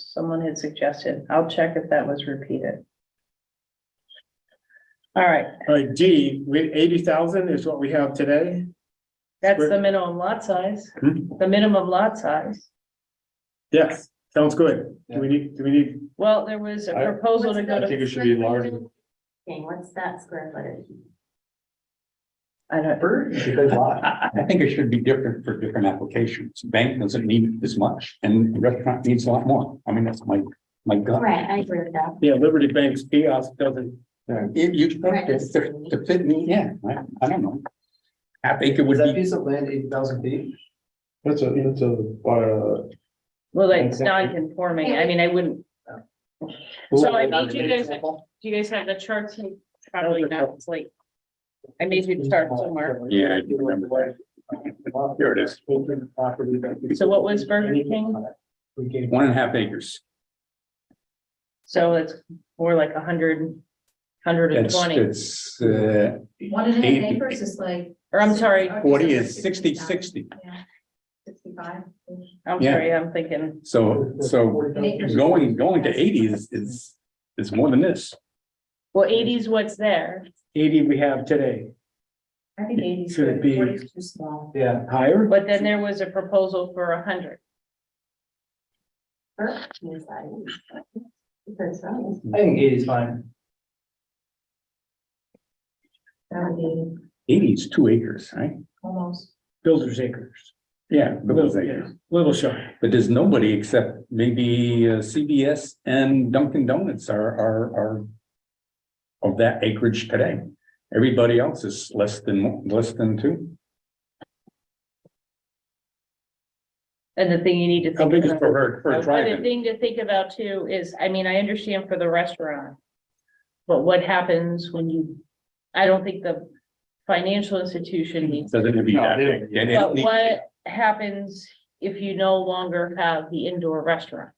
someone had suggested. I'll check if that was repeated. All right, All right, D, we, eighty thousand is what we have today. that's the minimum lot size, Hmm. the minimum lot size. Yes, sounds good. Do we need, do we need, Well, there was a I- proposal to go I to, think it should be larger. Okay, what's that square footage? I don't, I, I think it should be different for different applications. Bank doesn't need as much and restaurant needs a lot more. I mean, that's my, my gut. Right, I agree with that. yeah, Liberty Bank's kiosk doesn't, If you, to, to fit me, yeah, I, I don't know. Half acre would Is that be, piece of land eight thousand feet? That's a, that's a, uh. well, it's non-conforming. I mean, I wouldn't, So I need you guys- do you guys have the charts? Probably not, it's late. I made you start somewhere. Yeah, I do remember Here it is. So what was Burger King? We gave. one and a half acres. So it's more like a hundred, hundred and That's, twenty, that's, uh, One and a half Eighty. acres is like. or I'm sorry, forty is sixty, sixty. Yeah, Sixty-five. I'm Yeah. sorry, I'm thinking, So, so going, going to eighty is, is, is more than this. well, 80 is what's there, eighty we have today. I think eighty. Should it be- Forty is too small. Yeah. Higher? but then there was a proposal for a hundred. Burger King is like- Because, um, I think eight is fine. That would be Eighty is two acres, right? almost. Builders acres. Yeah. Little, those acres. yeah, little shy. But there's nobody except maybe uh, CBS and Dunkin' Donuts are, are, are of that acreage today. Everybody else is less than, less than two. And the thing you need to How think big is for about. her, for a The drive-in? thing to think about too is, I mean, I understand for the restaurant. But what happens when you, I don't think the financial institution needs, Doesn't it be No, that they big? don't. And it but Hmm. need- what happens if you no longer have the indoor restaurant?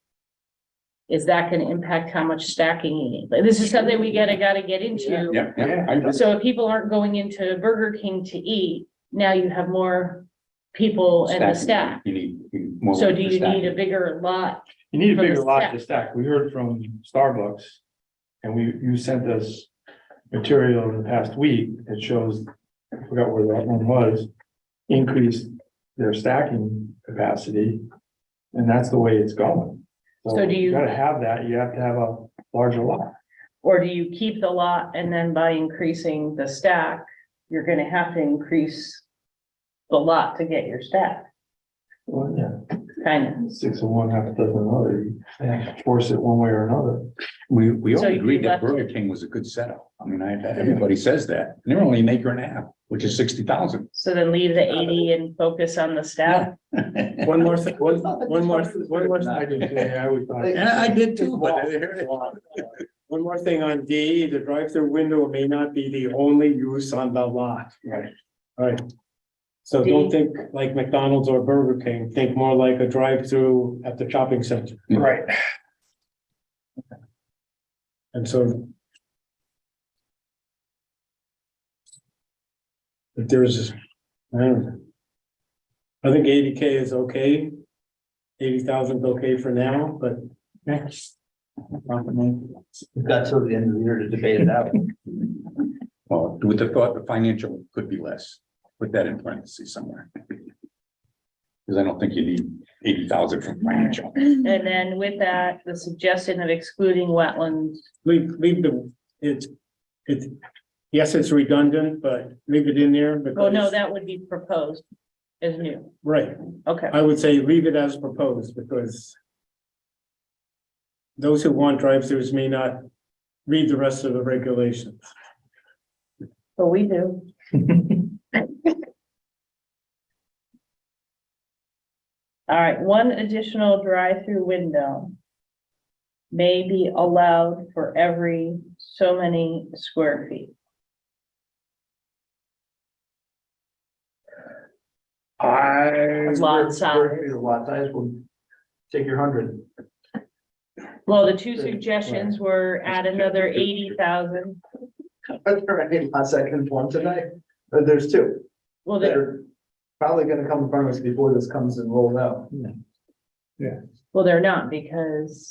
Is that gonna impact how much stacking you need? But this is something we gotta, gotta get into. Yeah, yeah, I agree. So if people aren't going into Burger King to eat, now you have more people and the staff. You need- you need more So do you staff. need a bigger lot? You need a For the bigger lot to stack. stack. We heard from Starbucks. And we, you sent us material in the past week that shows, I forgot where that one was. Increased their stacking capacity. And that's the way it's going. So do you- Gotta have that. You have to have a larger lot. Or do you keep the lot and then by increasing the stack, you're gonna have to increase the lot to get your stack, Well, yeah, kind six of one, half a dozen of another. You have to force it one way or another. We, we all So you agreed that left it- Burger King was a good setup. I mean, I, everybody says that. And they're only an acre and a half, which is sixty thousand. of. So then leave the eighty and focus on the stack. One more, thi- one, one more, one more, I did, yeah, I always thought. Yeah, I did too, but. one more thing on D, the drive-through window may not be the only use on the lot. Right. All right. So D. don't think like McDonald's or Burger King, think more like a drive-through at the shopping center. Right. And so. If there's, I don't know. I think eighty K is okay. Eighty thousand is okay for now, but We've got till the end of the year to debate it out. Well, with the thought, the financial could be less, put that in parentheses somewhere. Because I don't think you need eighty thousand for financial. And then with that, the suggestion of excluding wetlands. leave, leave the, it's, it's, yes, it's redundant, but leave it in there because. Well, oh, no, that would be proposed as new. Right, Okay. I would say leave it as proposed because those who want drive-throughs may not read the rest of the regulations. But we do. All right, one additional drive-through window may be allowed for every so many square feet. I. Lot size. The lot size will take your hundred. Well, the two suggestions were add another eighty thousand. Are there any lot second one tonight? Uh, There's two Well, that there, are probably gonna come in front of us before this comes and rolled out. well, they're not because